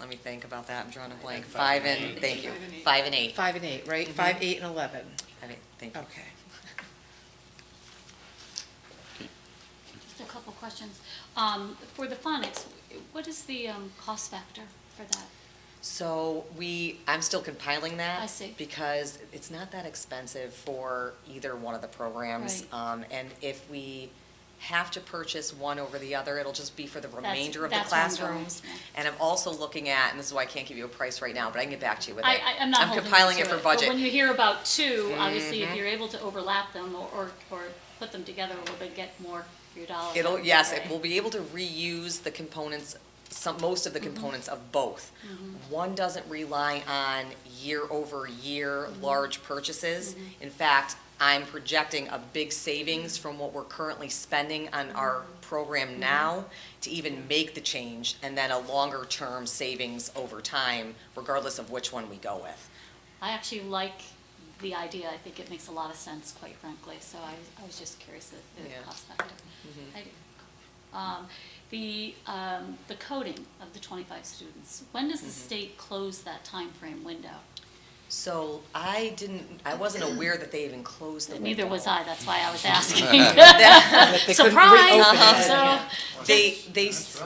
Let me think about that, I'm drawing a blank. Five Five and and, eight. thank you, five and eight. Five and eight, right? Five, eight, and 11. Five, eight, Thank you. Okay. Just a couple questions. Um, For the phonics, what is the um, cost factor for that? So we, I'm still compiling that. I see. Because it's not that expensive for either one of the programs. Right. Um, and if we have to purchase one over the other, it'll just be for the That's- remainder of the that's where I'm going, classrooms. yeah. And I'm also looking at, and this is why I can't give you a price right now, but I can get back to you with it. I, I- I'm not Uh, I'm holding you compiling to it for But when budget. Mm-hmm. you hear about two, obviously, if you're able to overlap them or- or, or put them together, will they get more for your dollar? It'll, That'd be yes, it great. will be able to reuse the components, some, most of the Mm-hmm. components of both. One doesn't rely on year-over-year Mm-hmm. large purchases. In fact, I'm projecting a big savings from what we're currently spending on Mm-hmm. our program now to even make the change, and then a longer-term savings over time, regardless of which one we go with. I actually like the idea. I think it makes a lot of sense, quite frankly, so I, I was just curious at the Yeah. Mm-hmm. cost factor. I do. Um, The, um, the coding of the twenty-five students, when does the Mm-hmm. state close that time frame window? So I didn't, I wasn't aware that they even closed the window. Neither was I, that's why I was asking. They couldn't reopen it. Uh-huh. Surprise! So, They, they, s-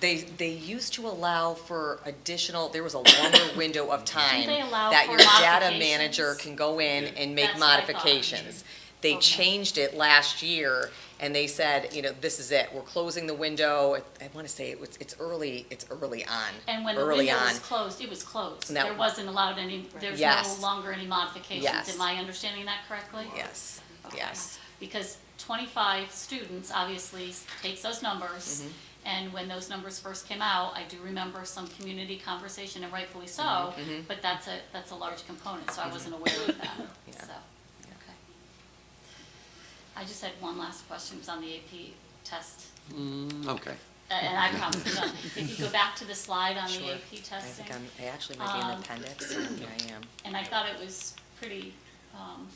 they, they used to allow for additional, there was a longer window of time they allow that for your data manager modifications? can go in and make That's what I thought. modifications. They Okay. changed it last year and they said, you know, this is it, we're closing the window. I- I wanna say it was, it's early, it's early on, and when the early window on. was closed, it was closed. That- There wasn't allowed any, there's no Yes. longer any modifications. Yes. Am I understanding that correctly? Yes, Okay. yes. Because twenty-five students obviously s- takes those numbers, Mm-hmm. and when those numbers first came out, I do remember some community conversation, and rightfully so, Mm-hmm, but that's a, that's a large component, so I wasn't aware of that, so, okay. I just had one last question, it was on the AP test, Okay. Uh, and I promise I'm done. If you go back to the slide on the Sure. AP I testing, think I'm, I actually might be in the Um, appendix, I think I am. and I thought it was pretty, um,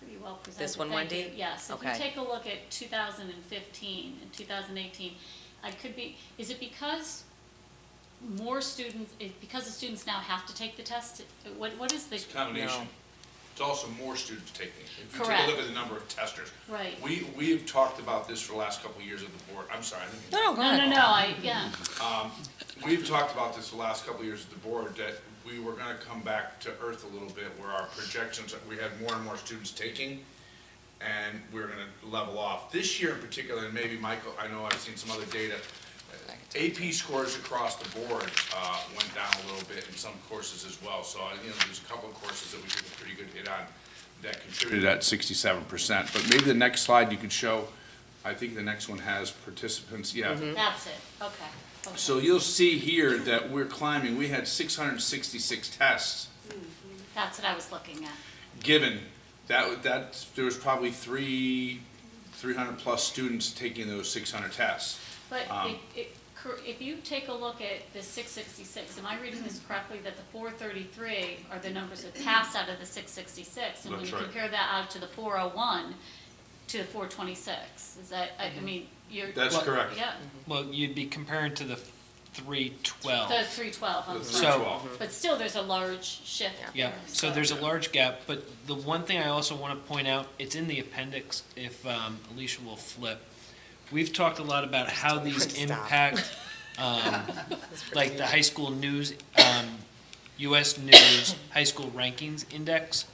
pretty well presented. This one, Thank you. Wendy? Yes, if you Okay. take a look at two thousand and fifteen and two thousand and eighteen, I could be, is it because more students, is because the students now have to take the test? What, what is the? It's a combination. No. It's also more students taking it. If you take Correct. a look at the number of testers. Right. We, we have talked about this for the last couple of years at the board. I'm sorry. I didn't mean to- No, No, no, no, I, yeah, We've talked about this the last couple of years at the board, that we were gonna come back to earth a little bit where our projections, we had more and more students taking and we were gonna level off. This year in particular, and maybe Michael, I know I've seen some other data, AP scores across the board, uh, went down a little bit in some courses as well. So, uh, you know, there's a couple of courses that we took a pretty good hit on that contributed at sixty-seven percent. But maybe the next slide you could show, I think the next one has participants, yeah. that's it, okay, okay. So you'll see here that we're climbing, we had six hundred and sixty-six tests That's what I was looking at, given. That, wa- that, there was probably three, three hundred plus students taking those six hundred tests. but Um, it, it, cor- if you take a look at the six sixty-six, am I reading this correctly, that the four thirty-three are the numbers that passed out of the six sixty-six? And when That's you right. compare that out to the four oh one, to the four twenty-six, is that, I, I mean, you're. That's Well- correct. Yeah, Well, you'd be comparing to the three the twelve. three twelve, I'm The sorry. 312. But still, there's a large shift. Yeah, there, so there's a large gap, but the one thing I also want to point out, it's in the appendix if um, Alicia will flip. We've talked a lot about how these Stop. impact, um, like the high school news, um, US News High School Rankings Index.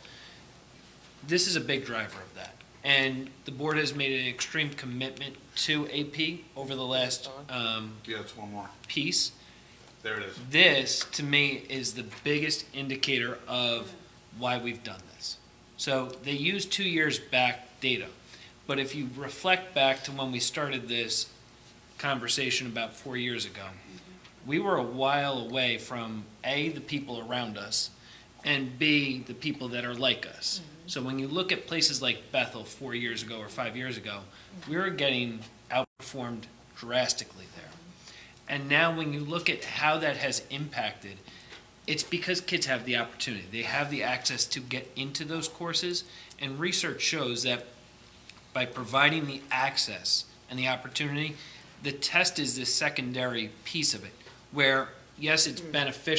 This is a big driver of that. And the board has made an extreme commitment to AP over the last um, Yeah, it's one more. piece. There it is. this to me is the biggest indicator of why we've done this. So they use two years back data, but if you reflect back to when we started this conversation about four years ago, we were a while away from A, the people around us, and B, the people that are like us. So when you look at places like Bethel four years ago or five years ago, we were getting outperformed drastically there. And now when you look at how that has impacted, it's because kids have the opportunity. They have the access to get into those courses. And research shows that by providing the access and the opportunity, the test is the secondary piece of it, where yes, it's beneficial